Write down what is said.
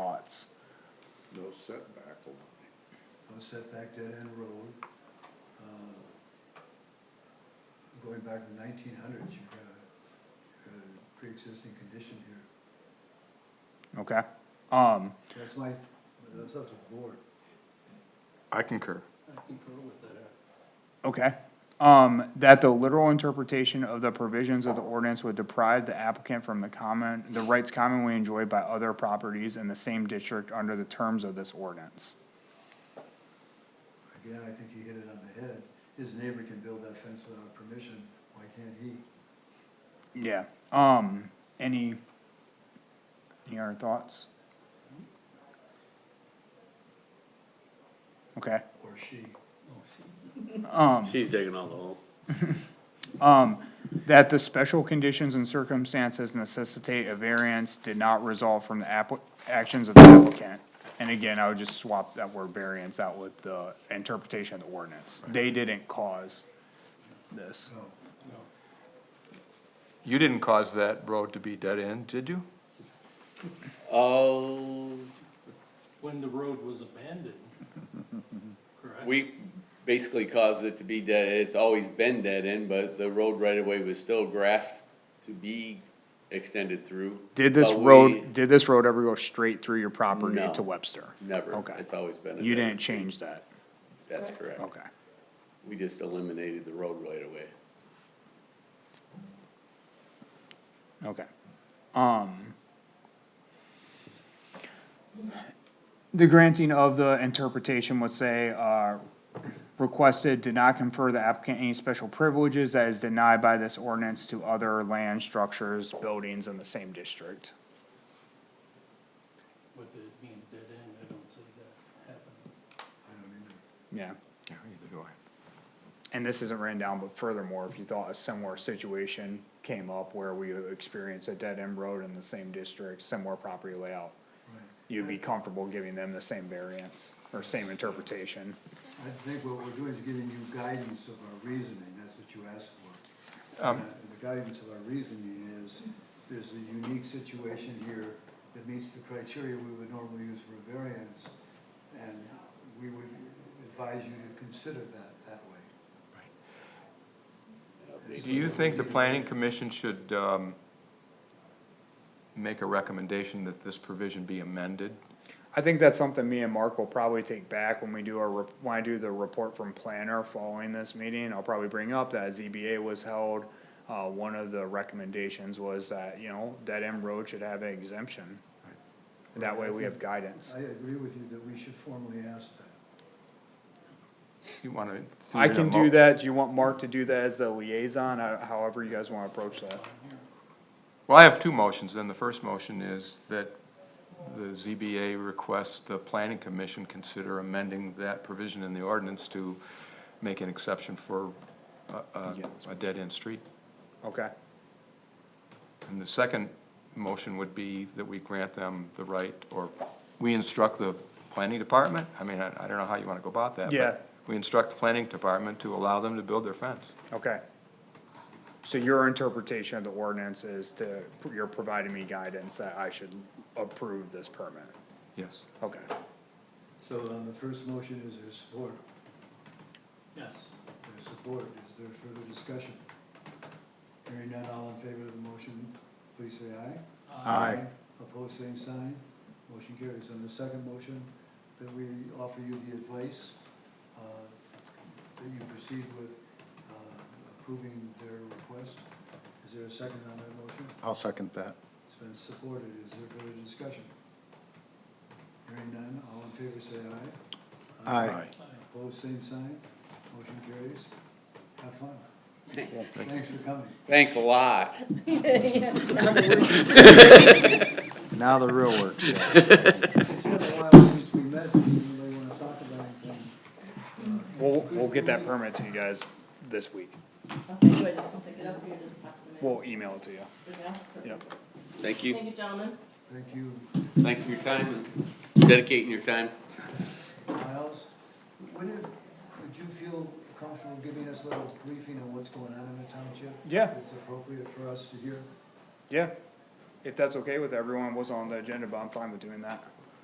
thoughts. No setback line. no setback dead end road. Uh, Going back to nineteen hundreds, you've got a, you've got a pre-existing condition here. Okay. Um, That's my, that's up to the board. I concur. I concur with that. okay. Um, that the literal interpretation of the provisions of the ordinance would deprive the applicant from the common, the rights commonly enjoyed by other properties in the same district under the terms of this ordinance. Again, I think he hit it on the head. His neighbor can build that fence without permission, why can't he? Yeah, um, any, any other thoughts? Okay, Or she. um. She's digging all the hole. Um, that the special conditions and circumstances necessitate a variance did not result from the appli- actions of the applicant. And again, I would just swap that word variance out with the interpretation of the ordinance. They didn't cause this. No, You didn't cause that road to be dead end, did you? Oh, when the road was abandoned, correct? we basically caused it to be dead, it's always been dead end, but the road right away was still graphed to be extended through. Did this But we- road, did this road ever go straight through your property No. to Webster? Never, Okay. it's always been. a You dead didn't end. change that, That's correct. okay. We just eliminated the road right away. Okay. Um. The granting of the interpretation would say, uh, requested did not confer the applicant any special privileges that is denied by this ordinance to other land structures, buildings in the same district. With it being dead end, I don't see that happening. I don't either. Yeah. Yeah, either do I. And this isn't written down, but furthermore, if you thought a similar situation came up where we experienced a dead end road in the same district, similar property layout, Right. you'd be comfortable giving them the same variance or same interpretation. I think what we're doing is giving you guidance of our reasoning, that's what you asked for. Um, Uh, The guidance of our reasoning is, there's a unique situation here that meets the criteria we would normally use for a variance, and we would advise you to consider that that way. Do you think the planning commission should, um, make a recommendation that this provision be amended? I think that's something me and Mark will probably take back when we do our, rep- when I do the report from planner following this meeting, I'll probably bring up that ZBA was held. Uh, one of the recommendations was that, you know, dead end road should have an exemption. That way we have guidance. I agree with you that we should formally ask that. You wanna? I can do that, do you want Mark to do that as the liaison, Uh, however you guys wanna approach that? Well, I have two motions, then the first motion is that the ZBA requests the planning commission consider amending that provision in the ordinance to make an exception for a, a, Yeah. a dead-end street. Okay, And the second motion would be that we grant them the right, or we instruct the planning department? I mean, I, I don't know how you wanna go about that. but Yeah. We instruct the planning department to allow them to build their fence. okay. So your interpretation of the ordinance is to, you're providing me guidance that I should approve this permit, Yes. okay. So on the first motion, is there support? Yes, There's support, is there further discussion? Hearing none, all in favor of the motion, please say aye. Aye. Opposed, same sign. Motion carries. On the second motion, that we offer you the advice, uh, that you proceed with uh, approving their request. Is there a second on that motion? I'll second that. It's been supported. Is there further discussion? Hearing none, all in favor say aye. Aye. Opposed, same sign. Motion carries. Have fun. Thanks for coming. Thanks a lot. Now the real work. Shelley. It's been a while since we met. Does anybody want to talk about anything? We'll, we'll get that permit to you guys this week. Okay, good, just don't pick it up, you just pass them in. We'll email it to you. Yeah. Yep. Thank Thank you. you, gentlemen. Thank you. Thanks for your time and dedicating your time. Miles, would it, would you feel comfortable giving us a little briefing on what's going on in the township? Yeah. It's appropriate for us to hear. Yeah, if that's okay with everyone, was on the agenda, but I'm fine with doing that.